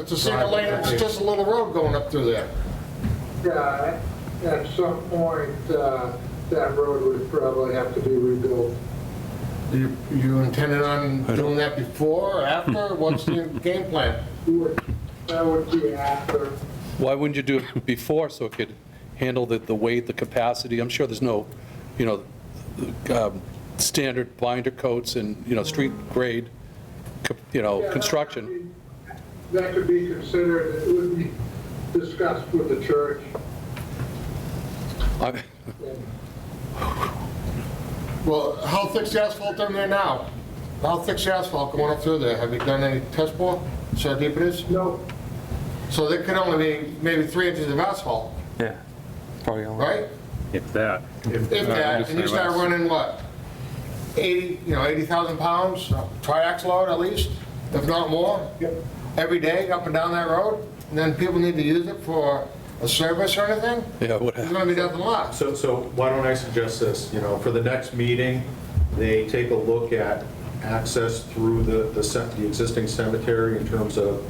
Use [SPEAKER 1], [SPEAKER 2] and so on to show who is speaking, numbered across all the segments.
[SPEAKER 1] It's a single lane, it's just a little road going up through there.
[SPEAKER 2] Yeah, at some point, uh, that road would probably have to be rebuilt.
[SPEAKER 1] You you intended on doing that before or after? What's your game plan?
[SPEAKER 2] Would- That would be after,
[SPEAKER 3] Why wouldn't you do it before so it could handle the, the weight, the capacity? I'm sure there's no, you know, um, standard binder coats and, you know, street grade, co- you know, Oh, construction.
[SPEAKER 2] that could be considered, it would be discussed with the church.
[SPEAKER 3] I-
[SPEAKER 1] Well, how thick's the asphalt in there now? How thick's the asphalt going up through there? Have you done any test bore? See how deep it is?
[SPEAKER 2] No,
[SPEAKER 1] So there could only be maybe three inches of asphalt,
[SPEAKER 4] Yeah, probably only.
[SPEAKER 1] right?
[SPEAKER 5] If that.
[SPEAKER 1] If that, and you start running what? 80, you know, 80,000 pounds, uh, triax load at least, if not more, every day up and down that road, and then people need to use it for a service or anything?
[SPEAKER 3] Yeah, what
[SPEAKER 1] There's gonna be nothing left.
[SPEAKER 6] So, so why don't I suggest this, you know, for the next meeting, they take a look at access through the, the cem- the existing cemetery in terms of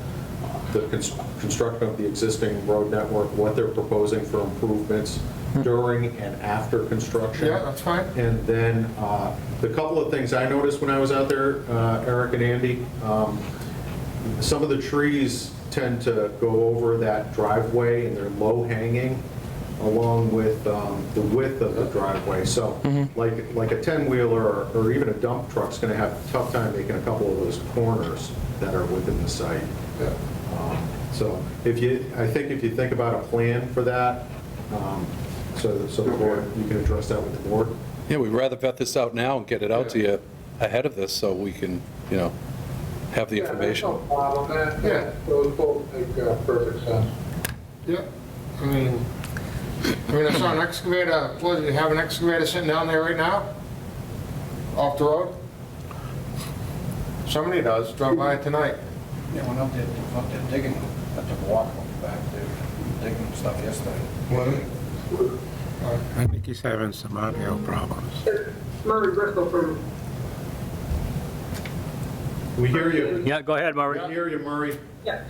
[SPEAKER 6] the cons- construction of the existing road network, what they're proposing for improvements during and after construction.
[SPEAKER 1] Hmm. Yeah, that's fine.
[SPEAKER 6] And then, uh, the couple of things I noticed when I was out there, uh, Eric and Andy, um, some of the trees tend to go over that driveway and they're low hanging along with um, the width of the driveway. So
[SPEAKER 1] Mm-hmm.
[SPEAKER 6] like, like a 10-wheeler or- or even a dump truck's going to have a tough time making a couple of those corners that are within the site. Um, So if you, I think if you think about a plan for that, um, so so the board, you can address that with the board.
[SPEAKER 3] Yeah, we'd rather vet this out now and get it out to you ahead of this so we can, you know, have the
[SPEAKER 2] yeah, that's no
[SPEAKER 3] information.
[SPEAKER 2] problem, that,
[SPEAKER 1] Yeah.
[SPEAKER 2] that, those both make uh, perfect sense.
[SPEAKER 1] Yeah, I mean, I mean, I saw an excavator, what, do you have an excavator sitting down there right now? Off the road? Somebody does, drove by it tonight.
[SPEAKER 7] Yeah, went up there, up there digging, I took a walk back there, digging stuff yesterday.
[SPEAKER 5] I think he's having some audio problems.
[SPEAKER 8] Murray Bristol from
[SPEAKER 6] We hear you.
[SPEAKER 5] Yeah, go ahead,
[SPEAKER 6] We
[SPEAKER 5] Murray.
[SPEAKER 6] hear you, Murray.
[SPEAKER 8] Yeah,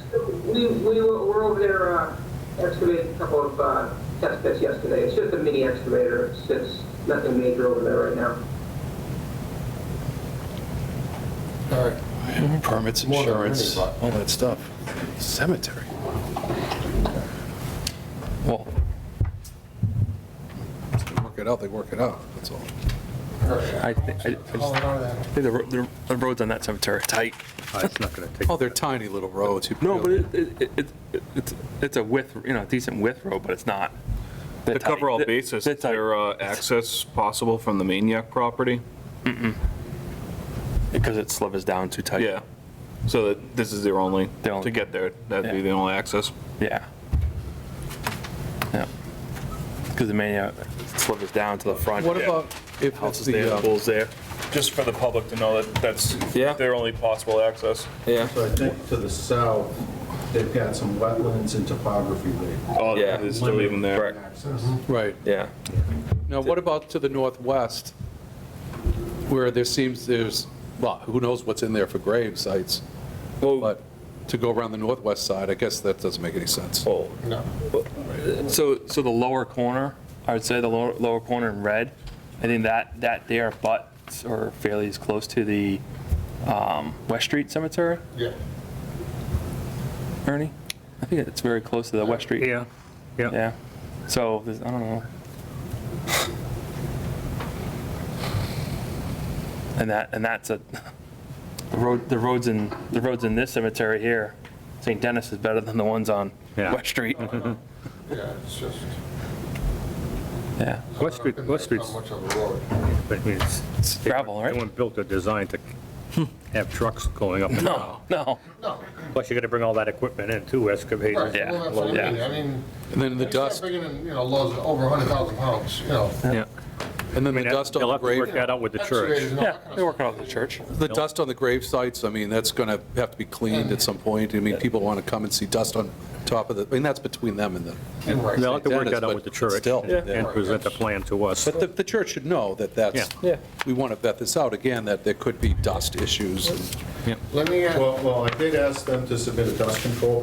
[SPEAKER 8] we, we were we're over there uh, excavating a couple of uh, test pits yesterday. It's just a mini excavator. It's, it's nothing major over there right now.
[SPEAKER 1] All right.
[SPEAKER 3] Permits,
[SPEAKER 1] More than
[SPEAKER 3] insurance,
[SPEAKER 1] many,
[SPEAKER 3] all that stuff. Cemetery. Well, if they work it out, they work it out, that's all.
[SPEAKER 4] I thi- I- I just
[SPEAKER 1] Hold on to that.
[SPEAKER 4] think the ro- the the roads on that cemetery are tight.
[SPEAKER 5] It's not going to take.
[SPEAKER 3] Oh, they're tiny little roads. you
[SPEAKER 4] No, but
[SPEAKER 3] really-
[SPEAKER 4] it, it, it- it- it's, it's a width, you know, decent width road, but it's not.
[SPEAKER 9] To cover all bases,
[SPEAKER 4] They're
[SPEAKER 9] is
[SPEAKER 4] tight.
[SPEAKER 9] there uh, access possible from the maniac property?
[SPEAKER 4] Because it slivers down too tight.
[SPEAKER 9] Yeah. So that this is their only,
[SPEAKER 4] Their only-
[SPEAKER 9] to get there, that'd be
[SPEAKER 4] Yeah.
[SPEAKER 9] the only access?
[SPEAKER 4] Yeah. Yeah. Because the mania slivers down to the front.
[SPEAKER 3] What
[SPEAKER 9] Yeah.
[SPEAKER 3] about if it's
[SPEAKER 4] Houses
[SPEAKER 3] the,
[SPEAKER 4] there,
[SPEAKER 3] um,
[SPEAKER 4] pools there.
[SPEAKER 9] Just for the public to know that that's
[SPEAKER 4] Yeah.
[SPEAKER 9] their only possible access.
[SPEAKER 4] Yeah.
[SPEAKER 6] So I think to the south, they've got some wetlands and topography there.
[SPEAKER 9] Oh,
[SPEAKER 4] Yeah.
[SPEAKER 9] they still leave them there.
[SPEAKER 6] Access.
[SPEAKER 3] right,
[SPEAKER 4] Yeah.
[SPEAKER 3] now what about to the northwest, where there seems there's, well, who knows what's in there for grave sites,
[SPEAKER 4] Well,
[SPEAKER 3] but to go around the northwest side, I guess that doesn't make any sense.
[SPEAKER 4] well,
[SPEAKER 1] No.
[SPEAKER 4] So, so the lower corner, I would say the lower, lower corner in red, I think that, that there butts or fairly is close to the um, West Street Cemetery,
[SPEAKER 1] Yeah.
[SPEAKER 4] Ernie? I think it's very close to the West Street.
[SPEAKER 5] Yeah, yeah.
[SPEAKER 4] Yeah. So, there's- I don't know. And that, and that's a, the road, the roads in, the roads in this cemetery here, St. Dennis is better than the ones on
[SPEAKER 5] Yeah.
[SPEAKER 4] West Street.
[SPEAKER 1] Yeah, it's just.
[SPEAKER 4] Yeah.
[SPEAKER 5] West Street, West Street's,
[SPEAKER 1] Not much of a road.
[SPEAKER 5] I mean, it's.
[SPEAKER 4] It's gravel, right?
[SPEAKER 5] No one built a design to have trucks going up and down.
[SPEAKER 4] No, no.
[SPEAKER 1] No.
[SPEAKER 5] Plus, you're going to bring all that equipment in too, excavators.
[SPEAKER 4] Yeah,
[SPEAKER 1] Well, that's what I mean. I mean.
[SPEAKER 3] And then the
[SPEAKER 1] you start
[SPEAKER 3] dust,
[SPEAKER 1] bringing in, you know, loads of over 100,000 pounds, you know.
[SPEAKER 4] Yeah.
[SPEAKER 3] and then
[SPEAKER 5] I
[SPEAKER 3] the
[SPEAKER 5] mean,
[SPEAKER 3] dust on
[SPEAKER 5] they'll
[SPEAKER 3] the
[SPEAKER 5] have to work
[SPEAKER 3] grave,
[SPEAKER 5] that out with the
[SPEAKER 1] excavators
[SPEAKER 5] church.
[SPEAKER 1] and all
[SPEAKER 4] Yeah,
[SPEAKER 1] that kind of
[SPEAKER 4] they're working out of the church.
[SPEAKER 3] the dust on the grave sites, I mean, that's going to have to be cleaned at some point. I mean, people want to come and see dust on top of the, I mean, that's between them and the.
[SPEAKER 1] Right.
[SPEAKER 5] They'll have to work that
[SPEAKER 3] Dennis,
[SPEAKER 5] out with the
[SPEAKER 3] but
[SPEAKER 5] church
[SPEAKER 3] still,
[SPEAKER 5] and and
[SPEAKER 1] yeah.
[SPEAKER 5] present the plan to us.
[SPEAKER 3] But the, the church should know that that's,
[SPEAKER 4] Yeah. Yeah.
[SPEAKER 3] we want to vet this out again, that there could be dust issues.
[SPEAKER 1] Let me, uh,
[SPEAKER 6] Well, well, I did ask them to submit a dust control